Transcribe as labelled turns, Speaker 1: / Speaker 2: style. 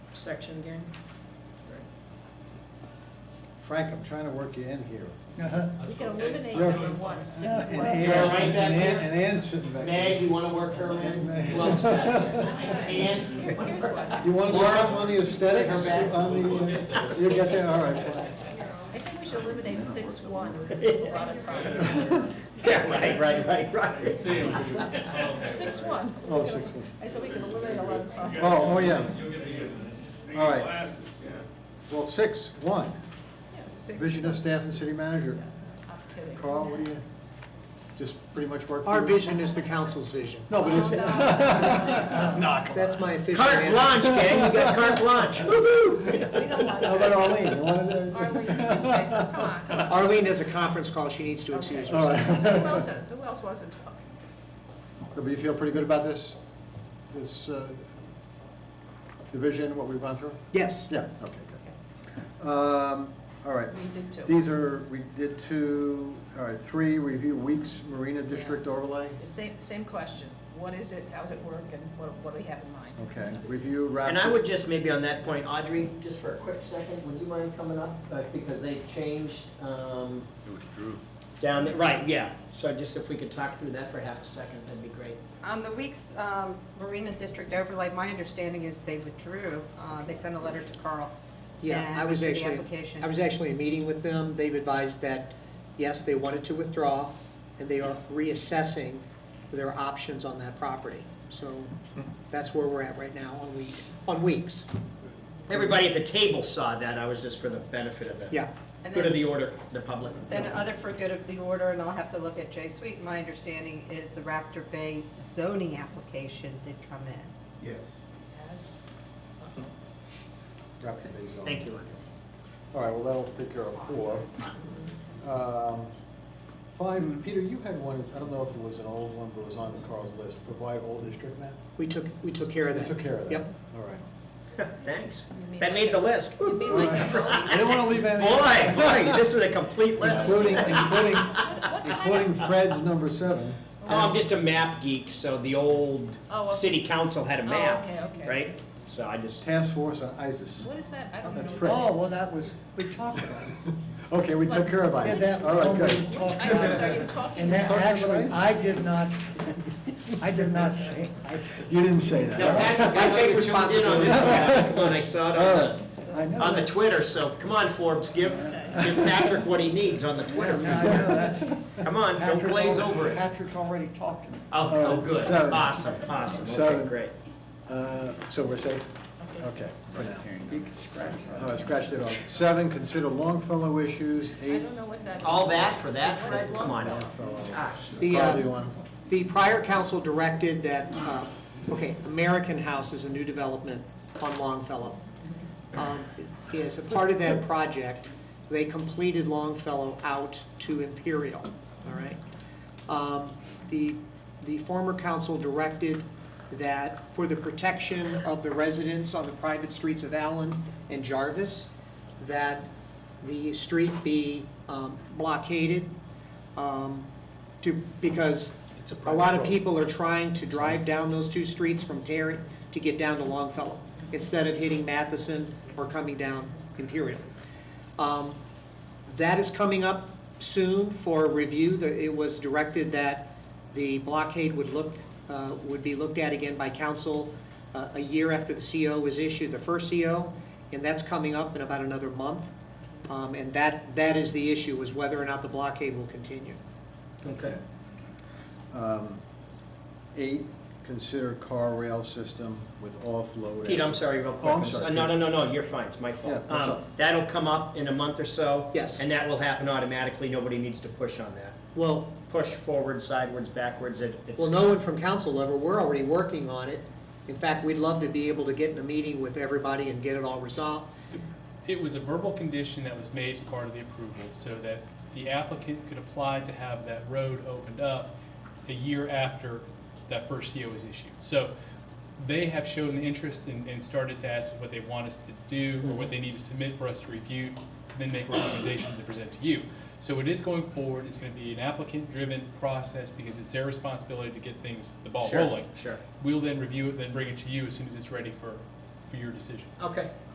Speaker 1: section again?
Speaker 2: Frank, I'm trying to work you in here.
Speaker 3: Uh-huh.
Speaker 1: We
Speaker 4: That's
Speaker 1: can
Speaker 4: okay.
Speaker 1: eliminate
Speaker 2: You're-
Speaker 1: number one, six
Speaker 3: Yeah,
Speaker 1: one.
Speaker 2: And
Speaker 3: and Ann-
Speaker 1: Yeah,
Speaker 2: Ann,
Speaker 4: right
Speaker 2: and
Speaker 4: back
Speaker 2: Ann,
Speaker 4: there.
Speaker 2: and Ann's sitting back
Speaker 4: Meg,
Speaker 2: there.
Speaker 4: you wanna work her in?
Speaker 2: Meg.
Speaker 4: Who else back there? Ann?
Speaker 1: Here- Here's what,
Speaker 2: You want to do
Speaker 4: Laura,
Speaker 2: something on the aesthetics?
Speaker 4: her back.
Speaker 2: On the, uh, you get that, all right. fine.
Speaker 1: I think we should eliminate six one, because it's a lot of time.
Speaker 5: Yeah, right, right, right, right.
Speaker 1: Six one.
Speaker 2: Oh, six one.
Speaker 1: I said we could eliminate a lot of time.
Speaker 2: Oh, oh, yeah.
Speaker 6: You'll get the,
Speaker 2: All right.
Speaker 6: glasses,
Speaker 2: Well, six, one,
Speaker 1: Yeah, six.
Speaker 2: vision of staff and city manager.
Speaker 1: Yeah, I'm kidding.
Speaker 2: Carl, what do you, just pretty much work for?
Speaker 5: Our
Speaker 2: you?
Speaker 5: vision is the council's vision.
Speaker 2: No, but it's.
Speaker 1: Oh, no.
Speaker 5: That's my official
Speaker 4: Carte
Speaker 5: answer.
Speaker 4: blanche, gang, you got carte blanche. Woo-hoo!
Speaker 1: We don't want
Speaker 2: How about Arlene? You wanted to?
Speaker 1: Arlene, you can say something, come on.
Speaker 5: Arlene has a conference call, she needs to excuse
Speaker 1: Okay.
Speaker 2: All
Speaker 5: herself.
Speaker 2: right.
Speaker 1: So who else, who else wasn't talking?
Speaker 2: Do you feel pretty good about this? This uh, division, what we've gone through?
Speaker 5: Yes.
Speaker 2: Yeah, okay, good. Um, All right.
Speaker 1: We did too.
Speaker 2: These are, we did two, all right, three, review Weeks Marina District overlay.
Speaker 1: Same, same question. What is it, how's it work, and what, what do we have in mind?
Speaker 2: Okay, review Raptor.
Speaker 4: And I would just maybe on that point, Audrey, just for a quick second, would you mind coming up? Uh, Because they've changed, um,
Speaker 6: It was Drew.
Speaker 4: down, the- right, yeah. So just if we could talk through that for half a second, that'd be great.
Speaker 7: On the week's um, Marina District overlay, my understanding is they withdrew. Uh, They sent a letter to Carl.
Speaker 5: Yeah,
Speaker 7: and
Speaker 5: I was
Speaker 7: withdrew the
Speaker 5: actually,
Speaker 7: application.
Speaker 5: I was actually in a meeting with them. They've advised that, yes, they wanted to withdraw, and they are reassessing their options on that property. So that's where we're at right now on week, on weeks.
Speaker 4: Everybody at the table saw that, I was just for the benefit of the,
Speaker 5: Yeah,
Speaker 7: And
Speaker 4: good of
Speaker 7: then-
Speaker 4: the order, the public.
Speaker 7: Then uh, other for good of the order, and I'll have to look at J Sweet, my understanding is the Raptor Bay zoning application did come in.
Speaker 2: Yes.
Speaker 1: Yes?
Speaker 2: Raptor Bay Zone.
Speaker 4: Thank you, Audrey.
Speaker 2: All right, well, that'll take care of four. Um, Five, Peter, you had one, I don't know if it was an old one, but it was on Carl's list, provide old district map?
Speaker 5: we took, we took care of
Speaker 2: We
Speaker 5: that.
Speaker 2: took care of that.
Speaker 5: Yep.
Speaker 2: All right.
Speaker 4: Thanks.
Speaker 1: You mean like
Speaker 4: That made the
Speaker 1: a-
Speaker 4: list.
Speaker 1: You mean like a
Speaker 2: I didn't want to leave anything.
Speaker 4: Boy, boy, this is a complete list.
Speaker 2: Including, including, including Fred's number seven.
Speaker 4: Oh, I'm just a map geek, so the old
Speaker 1: Oh, okay.
Speaker 4: city council had a
Speaker 1: Oh,
Speaker 4: map,
Speaker 1: okay, okay.
Speaker 4: right? So I just,
Speaker 2: Task Force on ISIS.
Speaker 1: What is that? I don't know.
Speaker 2: That's
Speaker 1: what
Speaker 2: Fred.
Speaker 3: Oh, well,
Speaker 1: it
Speaker 3: that was, we talked about it.
Speaker 2: Okay, we took care of
Speaker 3: And
Speaker 2: ISIS.
Speaker 3: that
Speaker 2: All right, good.
Speaker 3: was only
Speaker 1: is. Which
Speaker 3: talked
Speaker 1: ISIS
Speaker 3: about.
Speaker 1: are you talking
Speaker 3: And
Speaker 1: about?
Speaker 3: that,
Speaker 2: Talking about ISIS?
Speaker 3: actually, I did not, s- I did not say, I-
Speaker 2: You didn't say that.
Speaker 4: No,
Speaker 2: All right.
Speaker 4: Patrick, I take responsibility. When I saw it on
Speaker 3: Uh, I
Speaker 4: the,
Speaker 3: know.
Speaker 4: on the
Speaker 3: that.
Speaker 4: Twitter, so come on Forbes, give, give Patrick what he needs on the
Speaker 3: Yeah, no, I
Speaker 4: Twitter.
Speaker 3: know, that's.
Speaker 4: Come on, don't
Speaker 3: Patrick
Speaker 4: glaze
Speaker 3: already-
Speaker 4: over it.
Speaker 3: Patrick already talked to me.
Speaker 4: Oh, oh, good,
Speaker 2: Seven.
Speaker 4: awesome, awesome, okay,
Speaker 2: Seven.
Speaker 4: great.
Speaker 2: Uh, So we're safe? Okay. for now.
Speaker 3: You can scratch that.
Speaker 2: All right, scratched it off. Seven, consider Longfellow issues.
Speaker 1: I
Speaker 2: Eight,
Speaker 1: don't know what that is.
Speaker 4: All that for that,
Speaker 1: What is
Speaker 4: Fred, come on.
Speaker 1: Longfellow?
Speaker 2: Longfellow.
Speaker 4: Gosh.
Speaker 5: The, uh,
Speaker 4: um,
Speaker 2: Probably one.
Speaker 5: The prior council directed that, uh, okay, American House is a new development on Longfellow. Um, As a part of that project, they completed Longfellow out to Imperial, all right? Um, The, the former council directed that for the protection of the residents on the private streets of Allen and Jarvis, that the street be um, blockaded um, to, because a lot of people are trying to drive down those two streets from Terry to get down to Longfellow, instead of hitting Matheson or coming down Imperial. Um, That is coming up soon for review. The- It was directed that the blockade would look, uh, would be looked at again by council uh, a year after the CO was issued, the first CO, and that's coming up in about another month. Um, And that, that is the issue, is whether or not the blockade will continue.
Speaker 4: Okay.
Speaker 2: Um, Eight, consider car rail system with offload.
Speaker 4: Pete, I'm sorry, real quick. Uh,
Speaker 2: Oh, I'm sorry.
Speaker 4: No, no, no, no, you're fine, it's my
Speaker 2: Yeah,
Speaker 4: fault.
Speaker 2: that's
Speaker 4: Um,
Speaker 2: all.
Speaker 4: That'll come up in a month or so.
Speaker 5: Yes.
Speaker 4: And that will happen automatically, nobody needs to push on that.
Speaker 5: Well,
Speaker 4: Push forward, sidewards, backwards, it- it's.
Speaker 5: Well, no one from council level, we're already working on it. In fact, we'd love to be able to get in a meeting with everybody and get it all resolved.
Speaker 8: It was a verbal condition that was made as part of the approval, so that the applicant could apply to have that road opened up a year after that first CO was issued. So they have shown an interest and, and started to ask what they want us to do, or what they need to submit for us to review, and then make recommendations to present to you. So it is going forward, it's gonna be an applicant-driven process, because it's their responsibility to get things, the ball
Speaker 4: Sure,
Speaker 8: rolling.
Speaker 4: Sure.
Speaker 8: We'll then review it, then bring it to you as soon as it's ready for,
Speaker 9: for your decision.
Speaker 8: Okay.